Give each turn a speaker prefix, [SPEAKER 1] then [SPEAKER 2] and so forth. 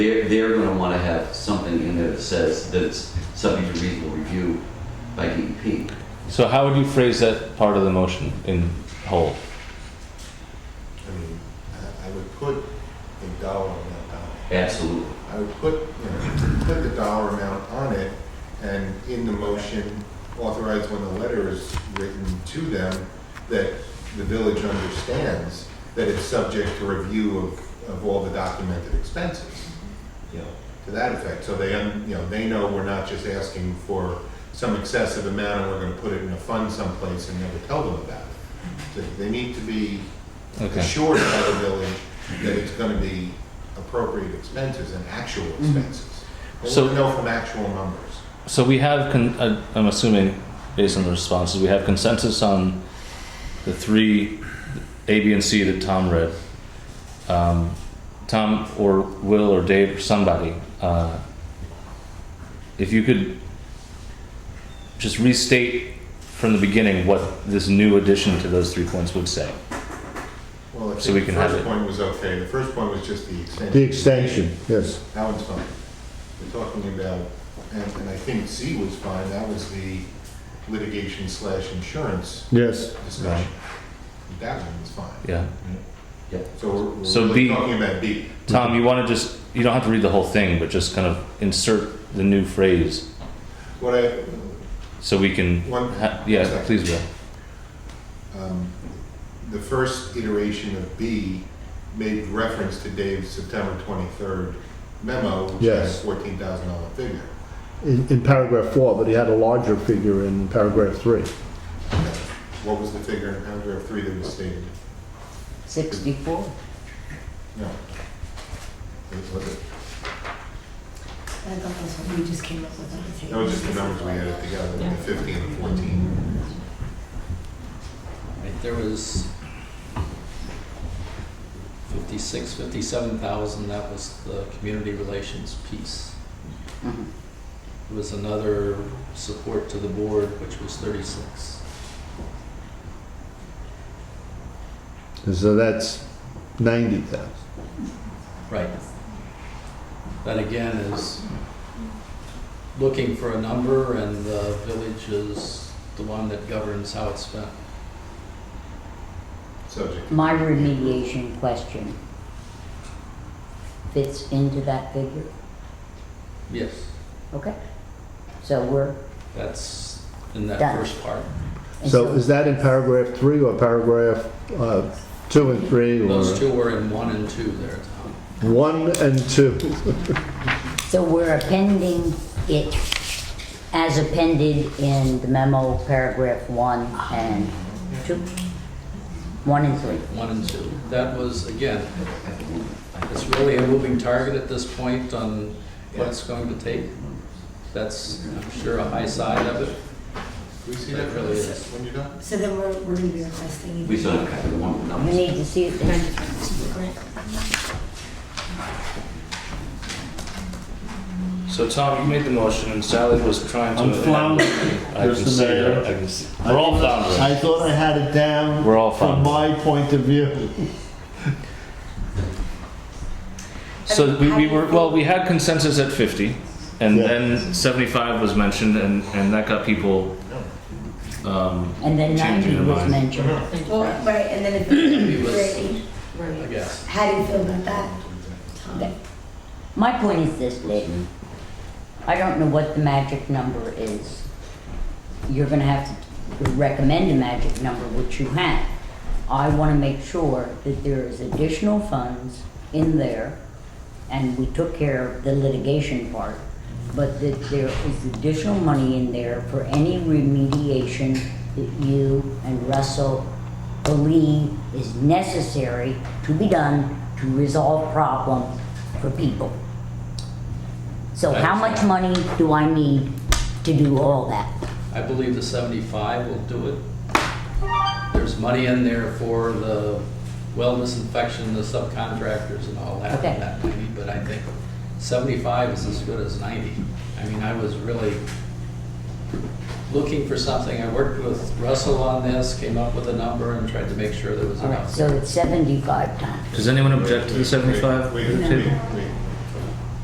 [SPEAKER 1] They're, they're gonna wanna have something in there that says that it's subject to reasonable review by E DEP.
[SPEAKER 2] So how would you phrase that part of the motion in whole?
[SPEAKER 3] I mean, I, I would put a dollar amount on it.
[SPEAKER 1] Absolutely.
[SPEAKER 3] I would put, you know, put the dollar amount on it and in the motion authorize when the letter is written to them that the village understands that it's subject to review of, of all the documented expenses. You know, to that effect, so they, un- you know, they know we're not just asking for some excessive amount and we're gonna put it in a fund someplace and never tell them about it. So They need to be
[SPEAKER 2] Okay.
[SPEAKER 3] assured by the village that it's gonna be appropriate expenses and actual
[SPEAKER 4] Mm-hmm.
[SPEAKER 3] expenses. But
[SPEAKER 2] So-
[SPEAKER 3] we know from actual numbers.
[SPEAKER 2] So we have, con- uh, I'm assuming, based on the responses, we have consensus on the three, A, B, and C that Tom read. Um, Tom or Will or Dave or somebody, uh, if you could just restate from the beginning what this new addition to those three points would say.
[SPEAKER 3] Well, I
[SPEAKER 2] So we
[SPEAKER 3] think the
[SPEAKER 2] can have
[SPEAKER 3] first
[SPEAKER 2] it.
[SPEAKER 3] point was okay, the first point was just the extension.
[SPEAKER 4] The extension, yes.
[SPEAKER 3] That one's fine. We're talking about, and, and I think C was fine, that was the litigation slash insurance
[SPEAKER 4] Yes.
[SPEAKER 3] discussion. That one was fine.
[SPEAKER 2] Yeah.
[SPEAKER 3] So we're,
[SPEAKER 2] So
[SPEAKER 3] we're really
[SPEAKER 2] B-
[SPEAKER 3] talking about B.
[SPEAKER 2] Tom, you want to just, you don't have to read the whole thing, but just kind of insert the new phrase
[SPEAKER 3] What I,
[SPEAKER 2] so we can,
[SPEAKER 3] one,
[SPEAKER 2] ha- yeah, please, Bill.
[SPEAKER 3] um, the first iteration of B made reference to Dave's September 23rd memo, which
[SPEAKER 4] Yes.
[SPEAKER 3] has $14,000 figure.
[SPEAKER 4] In, in paragraph four, but he had a larger figure in paragraph three.
[SPEAKER 3] What was the figure in paragraph three that was stated?
[SPEAKER 5] 64?
[SPEAKER 3] No. It was it?
[SPEAKER 6] I thought that's what we just came up with on the table.
[SPEAKER 3] That was just the numbers we added together, the 15 and 14.
[SPEAKER 7] Right, there was fifty-six, fifty-seven thousand, that was the community relations piece.
[SPEAKER 5] Mhm.
[SPEAKER 7] There was another support to the board, which was thirty-six.
[SPEAKER 4] And So that's ninety thousand.
[SPEAKER 7] Right. That again is looking for a number and the village is the one that governs how it's spent.
[SPEAKER 3] Subject.
[SPEAKER 5] My remediation question fits into that figure?
[SPEAKER 7] Yes,
[SPEAKER 5] Okay. So we're,
[SPEAKER 7] that's in that
[SPEAKER 5] Done.
[SPEAKER 7] first part.
[SPEAKER 5] and
[SPEAKER 4] So is that in paragraph three or paragraph, uh, two and three or?
[SPEAKER 7] Those two were in one and two there, Tom.
[SPEAKER 4] One and two.
[SPEAKER 5] so we're appending it as appended in the memo, paragraph one and two? One and three.
[SPEAKER 7] one and two. That was, again, it's really a moving target at this point on what it's going to take. That's, I'm sure, a high side of it.
[SPEAKER 3] Can we see
[SPEAKER 7] That
[SPEAKER 3] that
[SPEAKER 7] really is.
[SPEAKER 3] when you're done?
[SPEAKER 6] So then we're, we're gonna be requesting.
[SPEAKER 1] We still have kind of one
[SPEAKER 5] You
[SPEAKER 1] number.
[SPEAKER 5] need to see it then.
[SPEAKER 6] Grant.
[SPEAKER 2] So Tom, you made the motion and Sally was trying to.
[SPEAKER 8] I'm floundering,
[SPEAKER 2] I can
[SPEAKER 8] Mr.
[SPEAKER 2] see
[SPEAKER 8] Mayor.
[SPEAKER 2] that, I can see. We're all floundering.
[SPEAKER 8] I thought I had it down.
[SPEAKER 2] We're all
[SPEAKER 8] From
[SPEAKER 2] floundering.
[SPEAKER 8] my point of view.
[SPEAKER 2] So we, we were, well, we had consensus at fifty and
[SPEAKER 8] Yeah.
[SPEAKER 2] then seventy-five was mentioned and, and that got people, um,
[SPEAKER 5] And then
[SPEAKER 2] Changing
[SPEAKER 5] ninety
[SPEAKER 2] your
[SPEAKER 5] was
[SPEAKER 2] mind.
[SPEAKER 5] mentioned.
[SPEAKER 6] Well, right, and then if, right,
[SPEAKER 7] I guess.
[SPEAKER 6] how do you feel about that? Tom?
[SPEAKER 5] My point is this, Leighton. I don't know what the magic number is. You're gonna have to recommend a magic number, which you have. I wanna make sure that there is additional funds in there, and we took care of the litigation part, but that there is additional money in there for any remediation that you and Russell believe is necessary to be done to resolve problems for people. So how much money do I need to do all that?
[SPEAKER 7] I believe the 75 will do it. There's money in there for the well disinfection, the subcontractors and all that,
[SPEAKER 5] Okay.
[SPEAKER 7] that 90, but I think 75 is as good as 90. I mean, I was really looking for something. I worked with Russell on this, came up with a number and tried to make sure there was
[SPEAKER 5] All right,
[SPEAKER 7] enough.
[SPEAKER 5] so it's seventy-five times.
[SPEAKER 2] does anyone object to the
[SPEAKER 3] Wait,
[SPEAKER 2] seventy-five?
[SPEAKER 3] Wait, wait, wait.